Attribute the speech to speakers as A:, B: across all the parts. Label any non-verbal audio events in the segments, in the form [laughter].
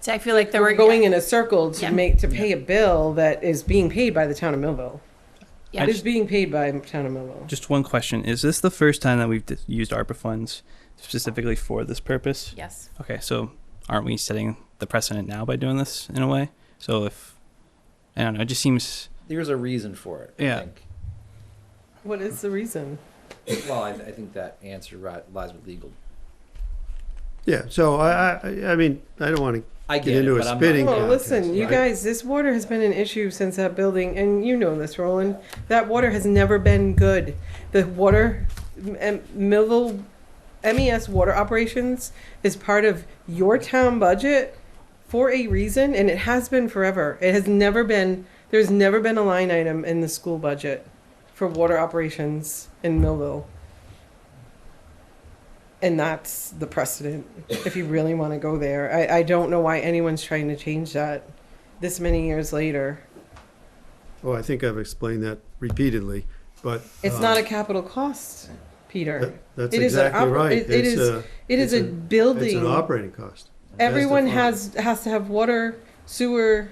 A: So I feel like there
B: We're going in a circle
A: Yeah.
B: to make, to pay a bill that is being paid by the town of Millville.
A: Yeah.
B: It is being paid by the town of Millville.
C: Just one question: Is this the first time that we've d- used ARPA funds specifically for this purpose?
A: Yes.
C: Okay, so aren't we setting the precedent now by doing this in a way? So if I don't know, it just seems
D: There's a reason for it. I
C: Yeah.
B: What is the reason?
D: think. Well, I, I think that answer ri- lies with legal.
E: Yeah, so I, I, I mean, I don't want to
D: I
E: get
D: get
E: into
D: it,
E: a
D: but I'm not-
E: spitting
B: Well,
E: contest.
B: listen, you
E: right?
B: guys, this water has been an issue since that building, and you know this, Roland. That water has never been good. The water, M- M- Millville MES water operations is part of your town budget for a reason, and it has been forever. It has never been, there's never been a line item in the school budget for water operations in Millville. And that's the precedent, if you really want to go there. I, I don't know why anyone's trying to change that this many years later.
E: Oh, I think I've explained that repeatedly, but.
B: It's
E: um,
B: not a capital cost,
E: that-
B: Peter.
E: That's
B: It is an
E: exactly
B: oper-
E: right.
B: it- it
E: It's
B: is-
E: a-
B: It is
E: it's
B: a
E: a- It's an
B: building.
E: operating cost. That's
B: Everyone
E: defined.
B: has, has to have water, sewer.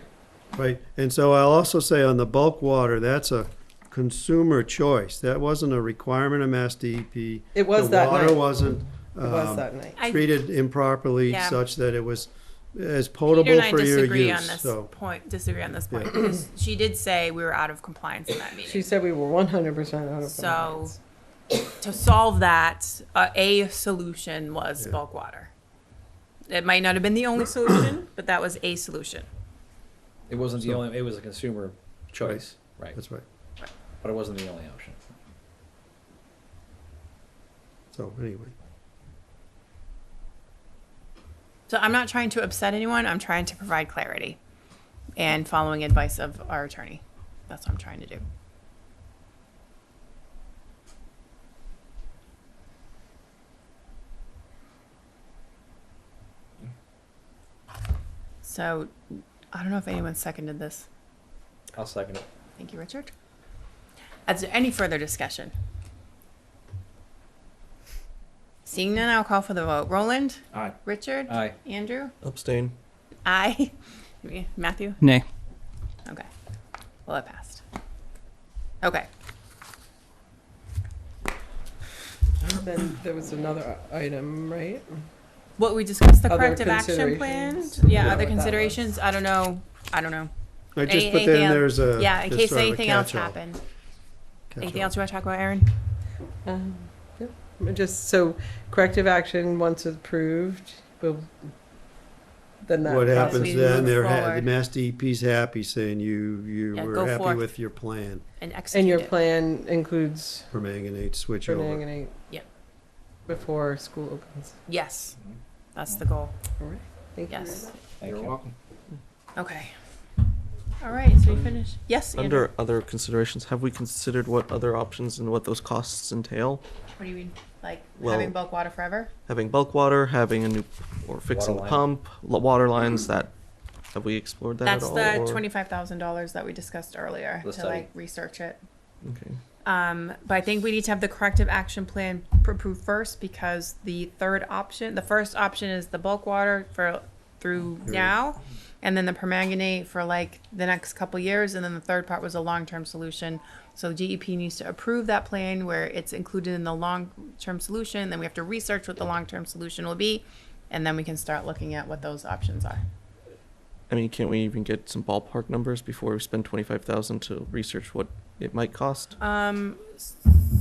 E: Right, and so I'll also say on the bulk water, that's a consumer choice. That wasn't a requirement of Mass DEP.
B: It was that
E: The water
B: night.
E: wasn't
B: It was
E: um,
B: that night.
A: I-
E: treated improperly
A: Yeah.
E: such that it was as
A: Peter
E: potable
A: and I
E: for your
A: disagree on
E: use,
A: this
E: so.
A: point. Disagree on this point
E: Yeah.
A: because she did say we were out of compliance in that meeting.
B: She said we were one hundred percent out of.
A: so
B: compliance.
A: to solve that, uh, a solution was
E: Yeah.
A: bulk water. It might not have been the only solution, but that was a solution.
D: It wasn't the
E: So-
D: only. It was a consumer choice, right?
E: That's right.
D: But it wasn't the only option.
E: So anyway,
A: So I'm not trying to upset anyone. I'm trying to provide clarity and following advice of our attorney. That's what I'm trying to do. So I don't know if anyone seconded this.
D: I'll second it.
A: Thank you, Richard. Is there any further discussion? Seeing none, I'll call for the vote. Roland?
D: Aye.
A: Richard?
D: Aye.
A: Andrew?
F: Abstain.
A: Aye. [laughs] Matthew?
C: nay.
A: Okay. Well, it passed. Okay.
B: Then there was another item, right?
A: What we discussed, the
B: Other
A: corrective action plan?
B: considerations.
A: Yeah,
B: Yeah.
A: other
B: What that
A: considerations. I don't know. I don't know.
E: I just put
A: Anything
E: then
A: else-
E: there's a.
A: Yeah, in
E: just
A: case
E: sort of a
A: anything else
E: catch-all,
A: happened. Anything
E: catch-all.
A: else you want to talk about, Aaron?
B: Um, yeah. Just so corrective action, once approved, will, then that.
E: What
B: process-
A: we move
E: happens then, they're, ha- the
A: forward.
E: Mass DEP's happy saying you, you
A: Yeah, go
E: were happy
A: forth.
E: with your plan
A: And execute
B: And your
A: it.
B: plan includes
E: for manganate switchover.
B: reneging.
A: Yep.
B: Before school opens.
A: Yes, that's the goal.
B: All right. Thank you.
A: Yes.
D: Thank
F: You're
D: you.
F: welcome.
A: Okay. All right. So we finished. Yes. Andrew.
F: Under other considerations, have we considered what other options and what those costs entail?
A: What do you mean? Like
F: Well-
A: having bulk water forever?
F: Having bulk water, having a new, or fixing the
D: Water
F: pump, lo- water lines, that, have we explored that at
A: That's
F: all?
A: the
F: or-
A: twenty-five thousand dollars that we discussed earlier
D: The
A: to
D: study.
A: like research it.
F: Okay.
A: Um, but I think we need to have the corrective action plan pr- approved first because the third option, the first option is the bulk water for through now, and then the permanganate for like the next couple years, and then the third part was a long-term solution. So DEP needs to approve that plan where it's included in the long-term solution. Then we have to research what the long-term solution will be, and then we can start looking at what those options are.
F: I mean, can't we even get some ballpark numbers before we spend twenty-five thousand to research what it might cost?
A: Um, s-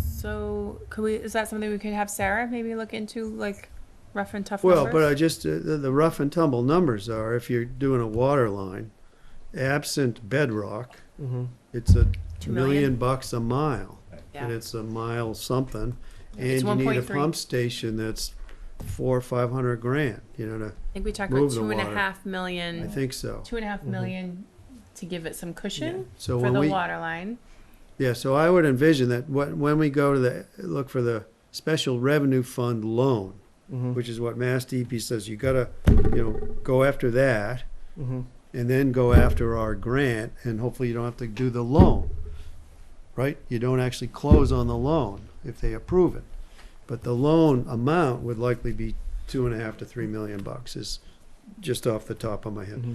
A: so could we? Is that something we could have Sarah maybe look into, like rough and tough
E: Well,
A: numbers?
E: but I just, uh, the, the rough and tumble numbers are, if you're doing a water line, absent bedrock,
F: Mm-hmm.
E: it's a
A: Two million.
E: million bucks a mile.
A: Yeah.
E: And it's a mile something, and
A: It's
E: you need a
A: 1.3.
E: pump station that's four, or five hundred grand, you know, to,
A: I think we talked about
E: move the
A: two and a
E: water.
A: half
E: I
A: million,
E: think so.
A: two and a half million to give it some cushion
E: So
A: for
E: when
A: the
E: we,
A: water line.
E: Yeah, so I would envision that wh- when we go to the, look for the special revenue fund loan,
F: Mm-hmm.
E: which is what Mass DEP says, you gotta, you know, go after that
F: Mm-hmm.
E: and then go after our grant and hopefully you don't have to do the loan. Right? You don't actually close on the loan if they approve it. But the loan amount would likely be two and a half to three million bucks is
F: Mm-hmm.
E: just off the top of my head.